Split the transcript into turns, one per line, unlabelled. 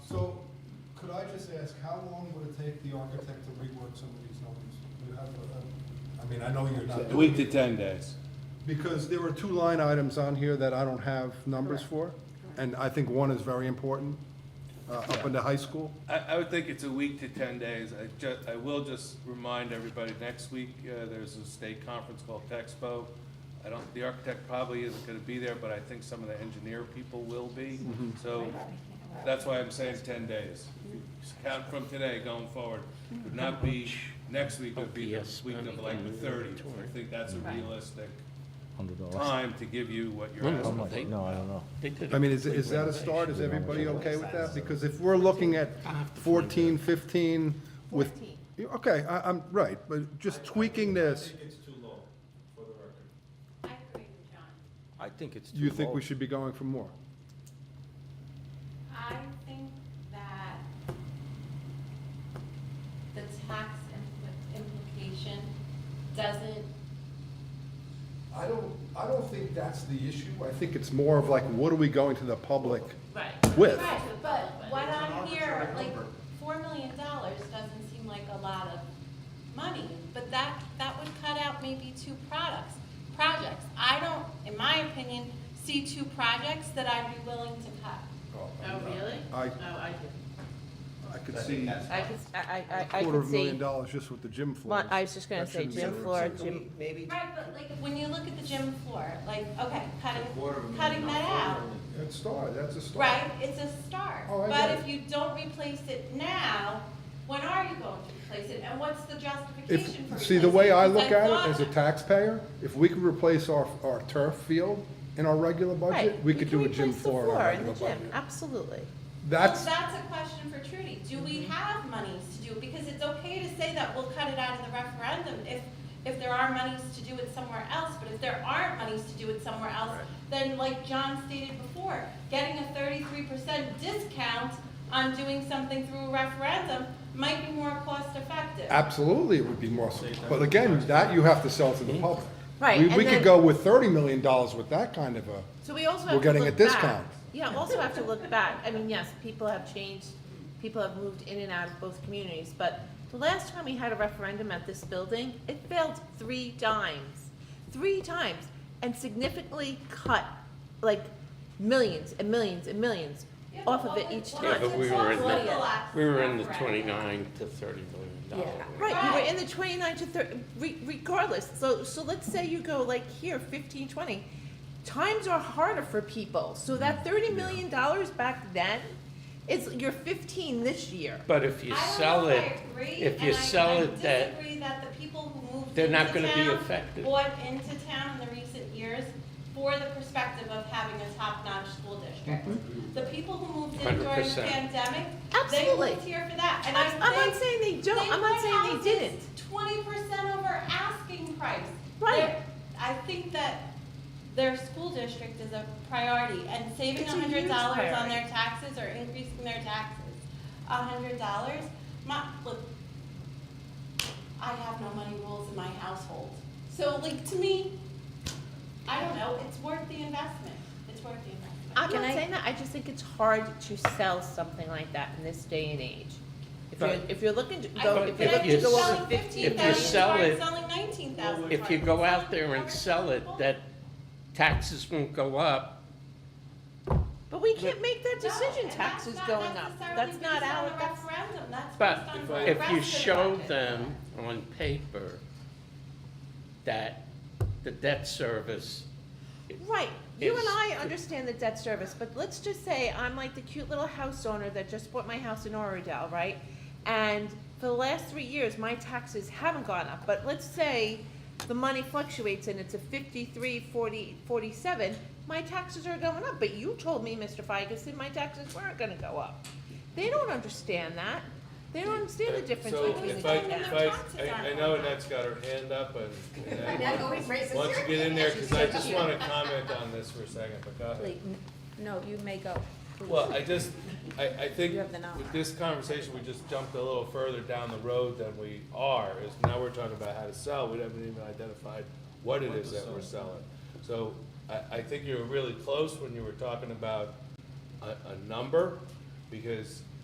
So, could I just ask, how long would it take the architect to rework some of these numbers? You have a- I mean, I know you're not.
A week to 10 days.
Because there are two line items on here that I don't have numbers for, and I think one is very important, uh, up in the high school.
I, I would think it's a week to 10 days. I ju, I will just remind everybody, next week, uh, there's a state conference called Texpo. I don't, the architect probably isn't gonna be there, but I think some of the engineer people will be. So that's why I'm saying 10 days. Count from today going forward. Would not be, next week would be the week of like the 30th. I think that's a realistic
Hundred dollars.
time to give you what you're
No,
asking for.
I don't know.
They did
I
it.
mean, is, is that a start? Is everybody okay with that? Because if we're looking at 14, 15 with. Yeah, Okay, I, I'm, right, but just tweaking this,
think it's too low, for the record.
I
Oh,
agree with John.
I think it's
you think we should be going for more?
I think that the tax impl- implication doesn't,
I don't, I don't think that's the issue. I think it's more of like, what are we going to the public?
right.
With.
Right, but what
It's an
I'm here,
arbitrary
like,
number.
four million dollars doesn't seem like a lot of money, but that, that would cut out maybe two products, projects. I don't, in my opinion, see two projects that I'd be willing to cut.
Oh, really?
I-
Oh, I did.
I could see a
I could, s- I, I, I
quarter
could
of a million
see,
dollars just with the gym floor.
Well, I was just gonna say gym floor, gym,
Maybe
Right, but like, when you look at the gym floor, like, okay, cutting,
quarter of a million.
cutting that out.
That's start, that's a start.
Right, it's a start,
Oh, I
but
get
if you don't replace it now, when are you going to replace it, and what's the justification for
If,
replacing it?
see, the way I look
Because
at
thought- Oh,
it as a taxpayer, if we could replace our, our turf field in our regular budget,
right.
we could do a gym
replace the
floor in our
in the
regular
gym,
budget.
absolutely.
That's, Mm-hmm.
That's a question for Trudy, do we have monies to do, it? because it's okay to say that we'll cut it out of the referendum if, if there are monies to do it somewhere else, but if there aren't monies to do it somewhere else, then like John stated before, getting a thirty-three percent discount on doing something through a referendum might be more cost-effective.
absolutely, it would be more, but again, that you have to sell to the public.
Right,
We,
and
we could
then-
go with thirty million dollars with that kind of a,
So we also
We're
have to look back.
getting a discount.
Yeah, also have to look back, I mean, yes, people have changed, people have moved in and out of both communities, but the last time we had a referendum at this building, it failed three times, three times, and significantly cut, like, millions and millions and millions
Yeah,
off
but
of it
what
each
was-
time.
Yeah, but we were in the,
Look-alike
we were in the
referendum.
twenty-nine to thirty million dollar. range.
Right, you were
Right.
in the twenty-nine to thirty, re- regardless, so, so let's say you go like here, fifteen, twenty. Times are harder for people, so
Mm,
that thirty million dollars back then, is, you're fifteen this year.
But if you
I don't
sell
know if I
it,
agree,
if you
and I- I
sell it that,
disagree that the people who moved
they're not
into
gonna be
town
affected.
Bought into town in the recent years for the perspective of having a top-notch school district. The people who moved in during the
100%.
pandemic, they
Mm-hmm. Absolutely.
moved here for that, and I
I'm,
think.
I'm not saying they don't, I'm not saying they didn't.
Twenty percent over asking price.
Right.
They're- I think that their school district is a priority, and saving
It's a
hundred
huge
dollars on
priority.
their taxes or increasing their taxes, hundred dollars, my, look, I have no money rules in my household. So like, to me, I don't know, it's worth the investment, it's worth the investment.
I'm
Can
not
I-
saying that, I just think it's hard to sell something like that in this day and age. If you're,
But-
if you're looking to
I
go,
But
if
think
you're
if
looking
you
to go
sell-
over fifteen
if you
thousand.
sell it-
Selling nineteen thousand.
if you go out there and sell it, that taxes won't go up.
But we can't make that
No,
decision,
and
taxes
that's not
going up,
necessarily
that's not
based on
our,
the
that's.
referendum, that's
But
based on the
if
rest
you
of the
show
budget.
them on paper that the debt service,
Right, you and
It's-
I understand the debt service, but let's just say I'm like the cute little house owner that just bought my house in Oradell, right? And for the last three years, my taxes haven't gone up, but let's say the money fluctuates and it's a fifty-three, forty, forty-seven, my taxes are going up, but you told me, Mr. Feigeson, my taxes weren't gonna go up. They don't understand that, they don't understand the difference
So
between the
if
two.
I,
two.
if I, I- I know Annette's got her hand up and. and I- Why don't you get in there, because I just want to comment on this for a second, but go ahead.
No, you may go.
Well, I just, I, I think
You have the knowledge.
with this conversation, we just jumped a little further down the road than we are, is now we're talking about how to sell, we haven't even identified what it is that we're selling. So I, I think you were really close when you were talking about a, a number, because